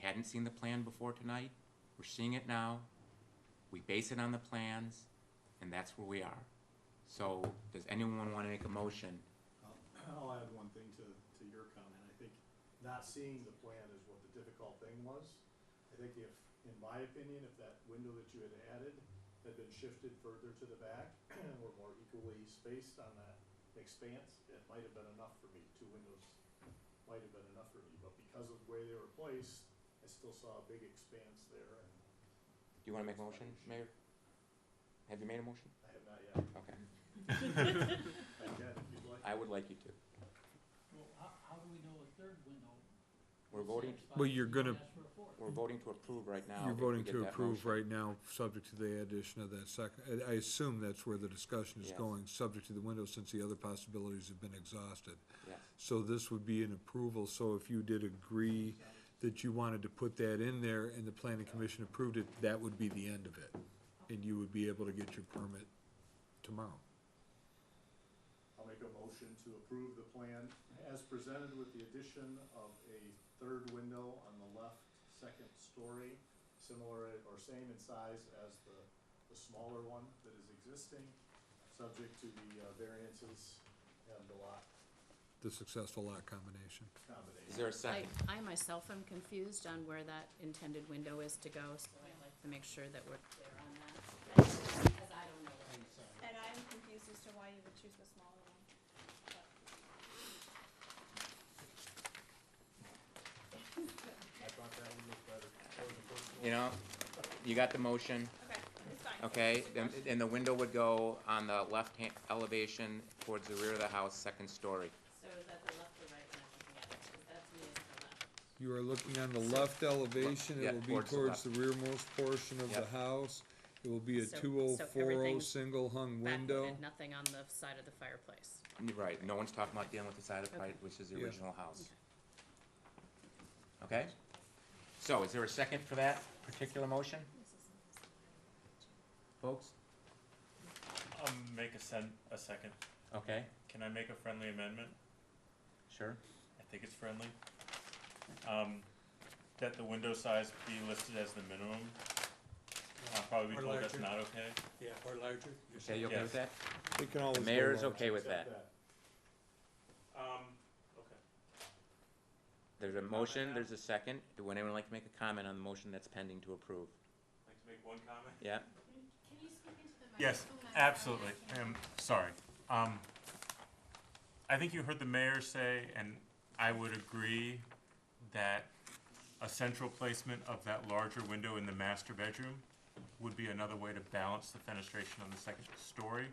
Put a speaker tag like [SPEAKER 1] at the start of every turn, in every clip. [SPEAKER 1] hadn't seen the plan before tonight. We're seeing it now. We base it on the plans, and that's where we are. So, does anyone want to make a motion?
[SPEAKER 2] I'll I'll add one thing to, to your comment. I think not seeing the plan is what the difficult thing was. I think if, in my opinion, if that window that you had added had been shifted further to the back or more equally spaced on that expanse, it might have been enough for me. Two windows might have been enough for me, but because of the way they were placed, I still saw a big expanse there and
[SPEAKER 1] Do you want to make a motion, Mayor? Have you made a motion?
[SPEAKER 2] I have not yet,
[SPEAKER 1] Okay,
[SPEAKER 2] I can if you'd like.
[SPEAKER 1] I would like you to.
[SPEAKER 3] Well, how, how do we know a third window?
[SPEAKER 1] We're voting,
[SPEAKER 4] Well, you're gonna-
[SPEAKER 1] we're voting to approve right now.
[SPEAKER 4] You're
[SPEAKER 1] if we
[SPEAKER 4] voting
[SPEAKER 1] get
[SPEAKER 4] to
[SPEAKER 1] that
[SPEAKER 4] approve
[SPEAKER 1] motion.
[SPEAKER 4] right now, subject to the addition of that second, I, I assume that's where the discussion is
[SPEAKER 1] Yes.
[SPEAKER 4] going, subject to the window, since the other possibilities have been exhausted.
[SPEAKER 1] Yes,
[SPEAKER 4] So this would be an approval, so if you did agree that you wanted to put that in there and the planning commission approved it, that would be the end of it. And you would be able to get your permit tomorrow.
[SPEAKER 2] I'll make a motion to approve the plan as presented with the addition of a third window on the left, second story, similar or same in size as the, the smaller one that is existing, subject to the uh, variances and the lot
[SPEAKER 4] The successful lot combination.
[SPEAKER 1] is
[SPEAKER 2] combination.
[SPEAKER 1] there a
[SPEAKER 5] I,
[SPEAKER 1] second?
[SPEAKER 5] I myself am confused on where that intended window is to go, so I'd like to make sure that we're clear on that. Because I don't know. where it is.
[SPEAKER 6] And I'm confused as to why you would choose the smaller one. but-
[SPEAKER 2] I thought that would look better. That was the first one.
[SPEAKER 1] You know, you got the motion,
[SPEAKER 6] Okay, it's fine.
[SPEAKER 1] okay? Then- And the window would go on the left-hand elevation towards the rear of the house, second story.
[SPEAKER 5] So is that the left or right when I'm looking at it? 'Cause that to me is the left.
[SPEAKER 4] You are looking on the left elevation,
[SPEAKER 1] Yeah,
[SPEAKER 4] it will be
[SPEAKER 1] towards the
[SPEAKER 4] towards
[SPEAKER 1] left.
[SPEAKER 4] the rearmost portion of the
[SPEAKER 1] Yep.
[SPEAKER 4] house. It will be a
[SPEAKER 5] So- so
[SPEAKER 4] two oh four oh
[SPEAKER 5] everything's
[SPEAKER 4] single hung window.
[SPEAKER 5] Backlit, nothing on the side of the fireplace.
[SPEAKER 1] You're Right, no one's talking about dealing with the side of the pipe, which is the
[SPEAKER 4] Yeah.
[SPEAKER 1] original house. Okay? So is there a second for that particular motion, folks?
[SPEAKER 7] I'll make a sen- a second.
[SPEAKER 1] Okay,
[SPEAKER 7] Can I make a friendly amendment?
[SPEAKER 1] sure.
[SPEAKER 7] I think it's friendly. Um, that the window size be listed as the minimum. I'll probably be
[SPEAKER 8] Or
[SPEAKER 7] told that's
[SPEAKER 8] larger.
[SPEAKER 7] not okay.
[SPEAKER 8] Yeah, or larger.
[SPEAKER 1] Okay, you okay with that?
[SPEAKER 4] It can always
[SPEAKER 1] The
[SPEAKER 4] go
[SPEAKER 1] mayor is
[SPEAKER 4] larger.
[SPEAKER 1] okay with
[SPEAKER 2] Accept
[SPEAKER 1] that.
[SPEAKER 7] Um, okay.
[SPEAKER 1] There's a motion, there's a second. Would anyone like to make a comment on the motion that's pending to approve?
[SPEAKER 7] I'd like to make one comment.
[SPEAKER 1] Yeah?
[SPEAKER 7] Yes, absolutely. I'm sorry. Um, I think you heard the mayor say, and I would agree, that a central placement of that larger window in the master bedroom would be another way to balance the fenestration on the second story.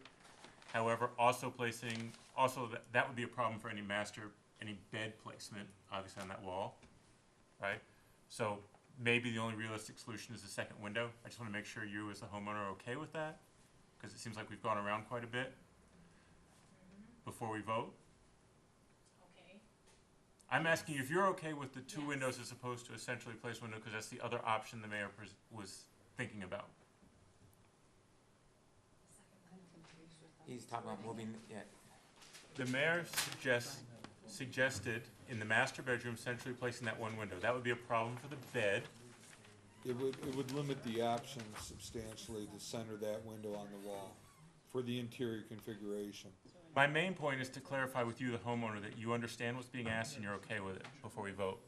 [SPEAKER 7] However, also placing, also that, that would be a problem for any master, any bed placement, obviously on that wall, right? So maybe the only realistic solution is the second window. I just wanna make sure you as the homeowner are okay with that, cause it seems like we've gone around quite a bit
[SPEAKER 5] Mm-hmm.
[SPEAKER 7] before we vote.
[SPEAKER 5] Okay.
[SPEAKER 7] I'm asking you if you're okay with the two
[SPEAKER 5] Yes.
[SPEAKER 7] windows as opposed to a centrally placed window, cause that's the other option the mayor pres- was thinking about.
[SPEAKER 1] He's talking about moving, yeah,
[SPEAKER 7] The mayor suggests, suggested in the master bedroom centrally placing that one window. That would be a problem for the bed.
[SPEAKER 4] It would, it would limit the options substantially to center that window on the wall for the interior configuration.
[SPEAKER 7] My main point is to clarify with you, the homeowner, that you understand what's being asked and you're okay with it before we vote.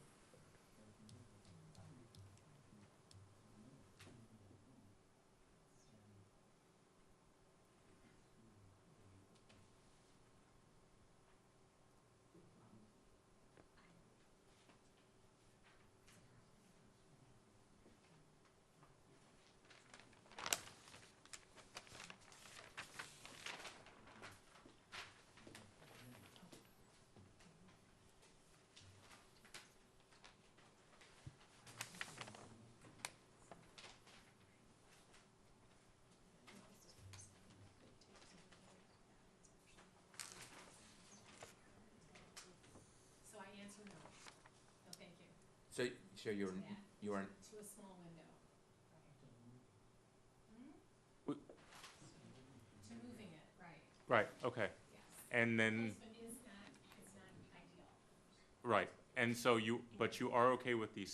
[SPEAKER 5] So I answer no. No, thank you.
[SPEAKER 1] so, so you're, you're,
[SPEAKER 5] To a small window.
[SPEAKER 7] We-
[SPEAKER 5] To moving it, right,
[SPEAKER 7] Right, okay.
[SPEAKER 5] yes.
[SPEAKER 7] And then,
[SPEAKER 5] Placement is not, it's not ideal.
[SPEAKER 7] right, and so you, but you are okay with the